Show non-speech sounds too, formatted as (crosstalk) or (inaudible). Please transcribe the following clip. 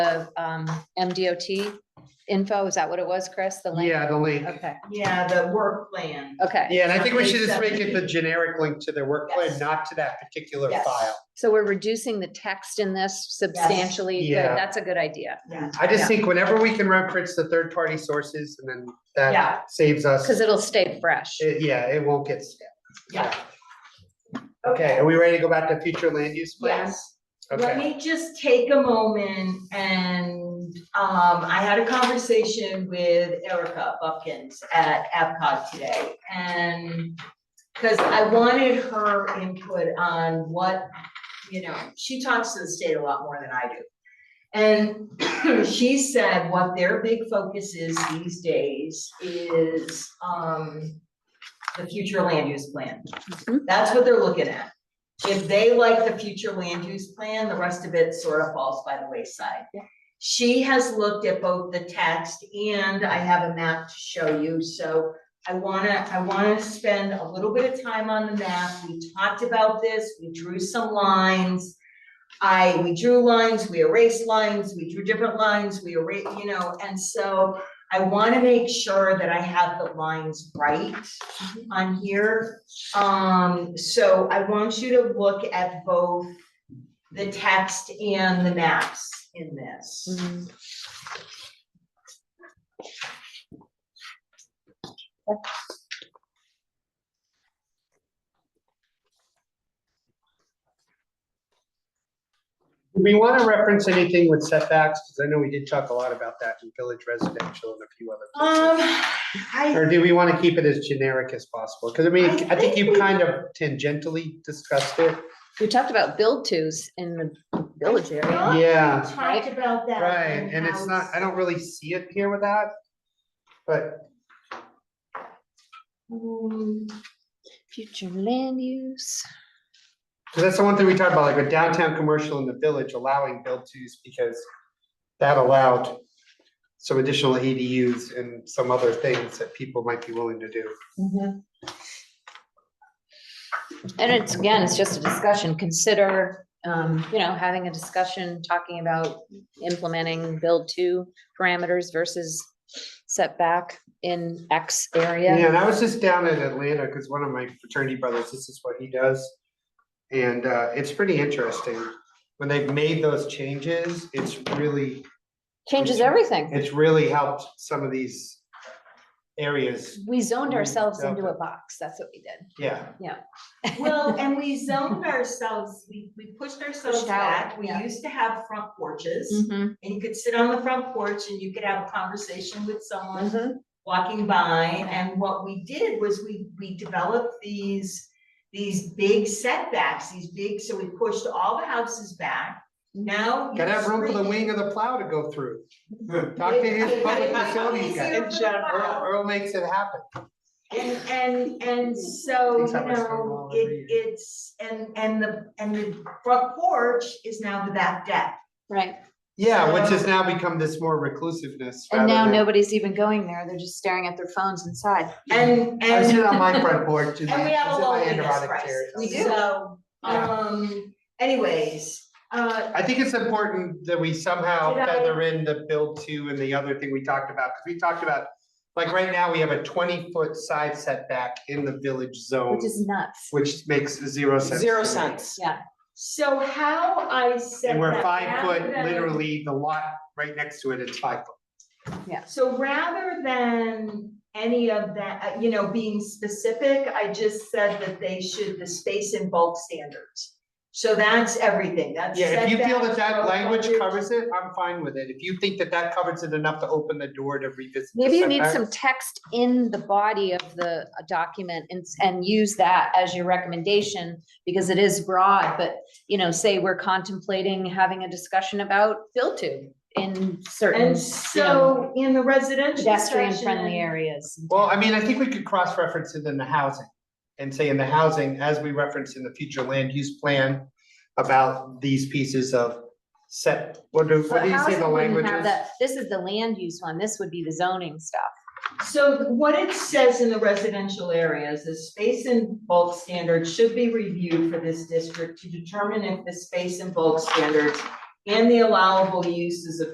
the um, MDOT info, is that what it was, Chris? The link? Yeah, the link. Okay, Yeah, the work plan. okay, Yeah, and I think we should just make it the generic link to their work plan, Yes. not to that particular Yes. file. so we're reducing the text in this substantially, Good, Yeah. that's a good idea. Yeah, I Yeah. just think whenever we can reference the third-party sources and then Yeah. that saves us. Because it'll stay fresh. It- Yeah, it won't get. stale. yeah. Okay, are we ready to go back to future land use plans? Yes. Okay, Let me just take a moment and, um, I had a conversation with Erica Buckins at APCOG today. And, cause I wanted her input on what, you know, she talks to the state a lot more than I do. And (clears throat) she said what their big focus is these days is, um, the future land use plan. Mhm. That's what they're looking at. If they like the future land use plan, the rest of it sort of falls by the wayside. Yeah. She has looked at both the text and I have a map to show you, so I wanna, I wanna spend a little bit of time on the map. We talked about this, we drew some lines. I, we drew lines, we erased lines, we drew different lines, we erased, you know, and so I wanna make sure that I have the lines right on here. Um, so I want you to look at both the text and the maps in this. Mhm. Do we want to reference anything with setbacks, because I know we did talk a lot about that in village residential and a few other Um, places. I, Or do we want to keep it as generic as possible? Because I mean, I I think think you we- kind of tangentially discussed it. We talked about build tos in the village area. thought we Yeah. talked about that. Right, and it's not, I don't really see it here with that, but don't. Mm. Future land use. 'cause that's the one thing we talked about, like with downtown commercial in the village allowing build twos because that allowed some additional ADUs and some other things that people might be willing to do. And it's, again, it's just a discussion, consider, um, you know, having a discussion, talking about implementing build two parameters versus setback in X Yeah, area. and I was just down in Atlanta because one of my fraternity brothers, this is what he does. And uh, it's pretty interesting. When they've made those changes, it's really, Changes everything. it's really helped some of these areas, We Mm, zoned ourselves into a box, that's what we did. yeah. (laughs) Well, and we zoned ourselves, we, we pushed ourselves Pushed out, back. We yeah. used to have front porches. Mhm, And you could sit on the front porch and you could have a conversation with someone mhm. walking by, and what we did was we, we developed these, these big setbacks, these big, so we pushed all the houses back. Mm-hmm. Now. Gotta have room for the you're wing of the plow to go through. Talk to (laughs) his public facilities guy. Easier for the Earl, plow. Earl makes it happen. And, and, and so, Takes you up my stone know, wall every it, it's, and, and the, and the front porch is now the back deck. Right, Yeah, which has now become this more reclusiveness. and now rather than- nobody's even going there, they're just staring at their phones inside. And, and. I sit on my front porch. (laughs) And we have a low interest price. We do. So, Yeah. um, anyways, uh, I think it's important that we somehow Did I- feather in the build two and the other thing we talked about, because we talked about, like, right now, we have a twenty-foot side setback in the village zone, Which is nuts. which makes zero sense. Zero to me. cents. So how I said And we're that, five foot, rather than- literally, the lot right next to it is five foot. So rather than any of that, uh, you know, being specific, I just said that they should, the space and bulk standards. So that's everything, that's. Yeah, if you feel that setbacks, road that language coverage. covers it, I'm fine with it. If you think that that covers it enough to open the door to revisit. the Maybe you need setback- some text in the body of the uh, document and, and use that as your recommendation, because it is broad, but, you know, say we're contemplating having a discussion about build to in certain And so in the residential pedestrian friendly section, areas. Well, I mean, I think we could cross-reference it in the housing and say in the housing, as we reference in the future land use plan about these pieces of set, what do, what But do you say housing the wouldn't language have is? that- This is the land use one, this would be the zoning stuff. So what it says in the residential areas is space and bulk standards should be reviewed for this district to determine if the space and bulk standards and the allowable uses of